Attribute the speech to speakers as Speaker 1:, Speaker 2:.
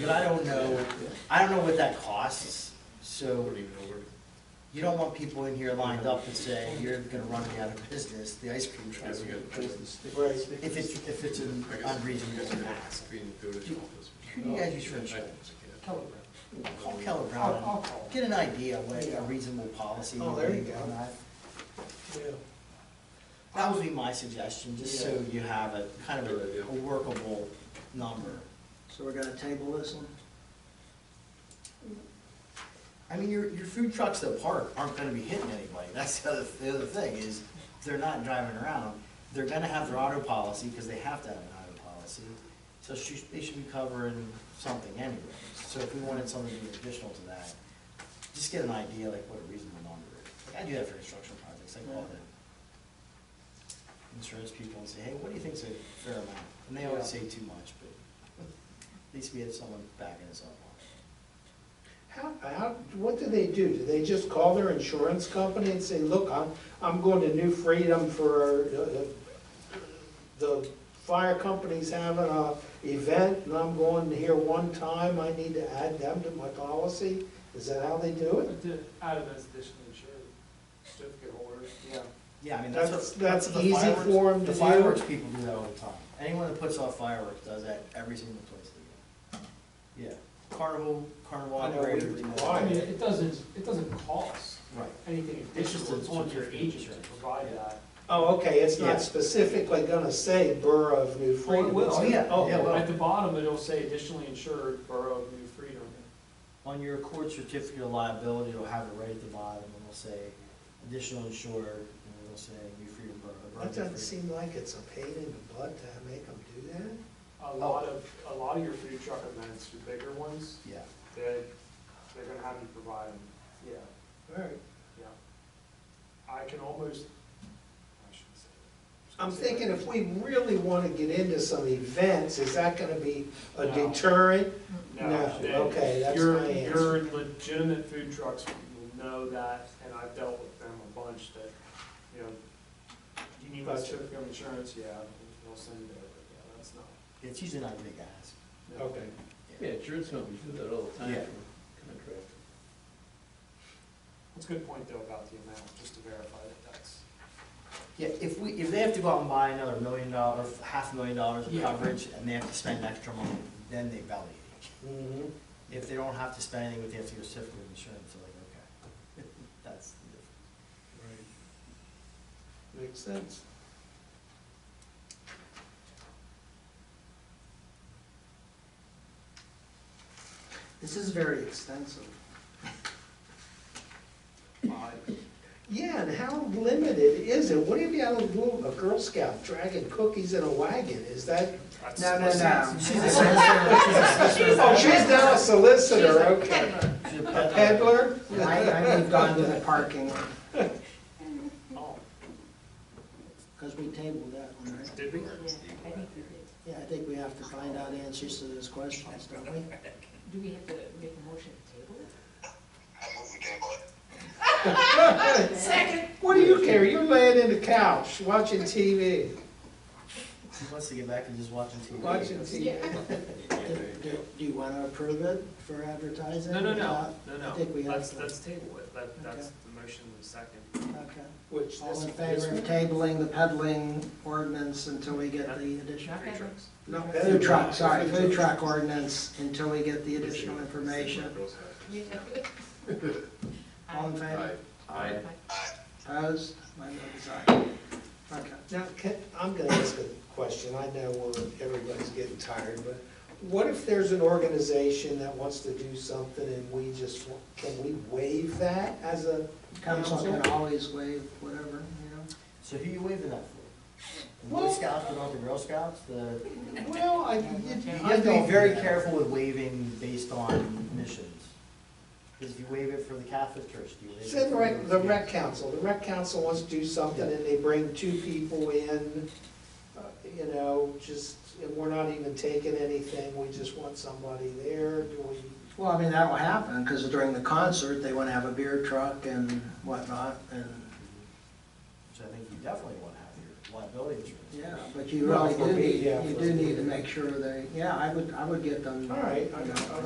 Speaker 1: But I don't know, I don't know what that costs, so
Speaker 2: Wouldn't even know where-
Speaker 1: you don't want people in here lined up and say, you're gonna run me out of business, the ice cream truck.
Speaker 2: Yes, you got it.
Speaker 1: If it's, if it's an
Speaker 2: I guess you guys
Speaker 1: unreasonable
Speaker 2: are gonna
Speaker 1: ask.
Speaker 2: have to be in the village office.
Speaker 1: Who do you guys use for
Speaker 2: I
Speaker 1: insurance?
Speaker 2: think
Speaker 3: Telegram.
Speaker 1: Call Keller
Speaker 3: I'll, I'll
Speaker 1: Brown,
Speaker 3: call.
Speaker 1: get an idea of what a reasonable policy
Speaker 3: Oh,
Speaker 1: would
Speaker 3: there you
Speaker 1: be
Speaker 3: go.
Speaker 1: on that.
Speaker 3: Yeah.
Speaker 1: That would be my suggestion, just so you have a kind of a a workable number.
Speaker 4: So we're gonna table this one?
Speaker 1: I mean, your, your food trucks that park aren't gonna be hitting anybody, that's the other, the other thing, is they're not driving around. They're gonna have their auto policy, because they have to have an auto policy, so she, they should be covering something anyway. So if we wanted something to be additional to that, just get an idea, like, what a reasonable number is. Like, I do that for construction projects, I call the insurance people and say, hey, what do you think's a fair amount? And they always say too much, but at least we have someone backing us up on
Speaker 5: How, how, what do they do? Do they just call their insurance company and say, look, I'm, I'm going to New Freedom for, uh, the fire company's having a event and I'm going here one time, I need to add them to my policy? Is that how they do it?
Speaker 6: But to add it as additional insured certificate holder, yeah.
Speaker 1: it. Yeah, I mean, that's
Speaker 5: That's,
Speaker 1: what.
Speaker 5: that's
Speaker 1: what the
Speaker 5: easy
Speaker 1: fireworks-
Speaker 5: for them to
Speaker 1: The
Speaker 5: do.
Speaker 1: fireworks people do that all the time. Anyone that puts off fireworks does that every single place they go. Yeah, carnival, carnival
Speaker 5: I know we
Speaker 1: operators. do that.
Speaker 5: require
Speaker 6: I mean, it doesn't, it doesn't cost
Speaker 1: Right.
Speaker 6: anything
Speaker 1: It's just
Speaker 6: additional,
Speaker 1: a
Speaker 6: it's on your
Speaker 1: certificate of
Speaker 6: agent to
Speaker 1: insurance.
Speaker 6: provide that.
Speaker 5: Oh, okay, it's
Speaker 1: Yeah.
Speaker 5: not specifically gonna say Borough of New
Speaker 6: Well,
Speaker 5: Freedom.
Speaker 6: it will.
Speaker 1: Oh, yeah,
Speaker 5: Oh,
Speaker 1: yeah, well,
Speaker 6: At the bottom, it'll say additionally insured Borough of New Freedom.
Speaker 1: on your court certificate of liability, it'll have it right at the bottom, and it'll say additional insured, and it'll say New Freedom Borough. Borough
Speaker 5: That
Speaker 1: of New
Speaker 5: doesn't
Speaker 1: Freedom.
Speaker 5: seem like it's a pain in the butt to make them do that.
Speaker 6: A lot of, a lot of your food truck events, your bigger ones,
Speaker 1: Yeah,
Speaker 6: they, they're gonna have you provide them, yeah,
Speaker 5: All right.
Speaker 6: yeah. I can almost, I shouldn't say that.
Speaker 5: I'm thinking if we really want to get into some events, is that going to be a
Speaker 6: No.
Speaker 5: deterrent?
Speaker 6: No,
Speaker 5: No,
Speaker 6: they-
Speaker 5: okay, that's
Speaker 6: your-
Speaker 5: my answer.
Speaker 6: Your legitimate food trucks will know that, and I've dealt with them a bunch that, you know, you need my
Speaker 5: Gotcha.
Speaker 6: certificate of insurance, yeah, they'll send it over, yeah, that's not.
Speaker 1: it's usually not a big ask.
Speaker 6: no.
Speaker 5: Okay.
Speaker 2: Yeah, insurance companies do that all the time
Speaker 1: Yeah.
Speaker 2: for contract.
Speaker 6: That's a good point though about the amount, just to verify that that's.
Speaker 1: Yeah, if we, if they have to go out and buy another million dollar, or half a million dollars of
Speaker 6: Yeah.
Speaker 1: coverage, and they have to spend extra money, then they belly ache.
Speaker 5: Mhm.
Speaker 1: If they don't have to spend anything, but they have to get a certificate of insurance, they're like, okay, that's the difference.
Speaker 5: Makes sense.
Speaker 4: This is very extensive.
Speaker 5: Yeah, and how limited is it? What if you had a little, a Girl Scout dragging cookies in a wagon? Is that?
Speaker 6: that's-
Speaker 4: No, no, no.
Speaker 1: She's a solicitor, she's a solicitor.
Speaker 5: Oh, she's now a solicitor, okay.
Speaker 1: She's a
Speaker 5: A
Speaker 1: peddler.
Speaker 5: peddler?
Speaker 4: I, I moved on to the parking,
Speaker 6: Oh,
Speaker 4: because we tabled that one, right?
Speaker 6: did we?
Speaker 7: I think we did.
Speaker 4: Yeah, I think we have to find out answers to those questions, don't we?
Speaker 7: Do we have to make a motion to table it?
Speaker 5: Second. What do you care? You're laying in the couch, watching TV,
Speaker 1: She wants to get back and just watching TV.
Speaker 5: watching TV.
Speaker 4: Do- Do do you want to approve it for advertising?
Speaker 6: No, no, no,
Speaker 4: Uh,
Speaker 6: no,
Speaker 4: I think we
Speaker 6: no,
Speaker 4: have
Speaker 6: let's,
Speaker 4: to.
Speaker 6: let's table it, that, that's
Speaker 4: Okay.
Speaker 6: the motion in the second.
Speaker 4: Okay.
Speaker 5: Which
Speaker 4: All
Speaker 5: this
Speaker 4: in
Speaker 5: this
Speaker 4: favor of tabling the peddling ordinance until we get the additional?
Speaker 6: Food trucks.
Speaker 5: Not better.
Speaker 4: Food truck, sorry, food truck ordinance until we get the additional information. All in favor?
Speaker 2: Aye.
Speaker 4: Opposed? My vote is aye. Okay.
Speaker 5: Now, can, I'm gonna ask a question, I know we're, everybody's getting tired, but what if there's an organization that wants to do something and we just, wa- can we waive that as a
Speaker 4: Council
Speaker 5: council?
Speaker 4: can always waive whatever, you know?
Speaker 1: So who you waving that for? The Boy
Speaker 5: Well-
Speaker 1: Scouts, but not the Girl Scouts, the,
Speaker 5: Well, I,
Speaker 1: you
Speaker 5: I
Speaker 1: have to
Speaker 5: don't.
Speaker 1: be very careful with waving based on missions. Because if you waive it for the Catholic Church, do you waive it?
Speaker 5: Say the
Speaker 1: for-
Speaker 5: rec, the rec council, the rec council wants to do something and they bring two people in, uh, you know, just, and we're not even taking anything, we just want somebody there, do we?
Speaker 4: Well, I mean, that will happen, because during the concert, they want to have a beer truck and whatnot, and,
Speaker 1: Which I think you definitely want to have here. liability insurance.
Speaker 4: Yeah, but you
Speaker 5: Well,
Speaker 4: really
Speaker 5: for
Speaker 4: do
Speaker 5: me,
Speaker 4: need,
Speaker 5: yeah,
Speaker 4: you
Speaker 5: for-
Speaker 4: do need to make sure they, yeah, I would, I would get them.
Speaker 5: All right, I-
Speaker 4: you know,
Speaker 5: I'll-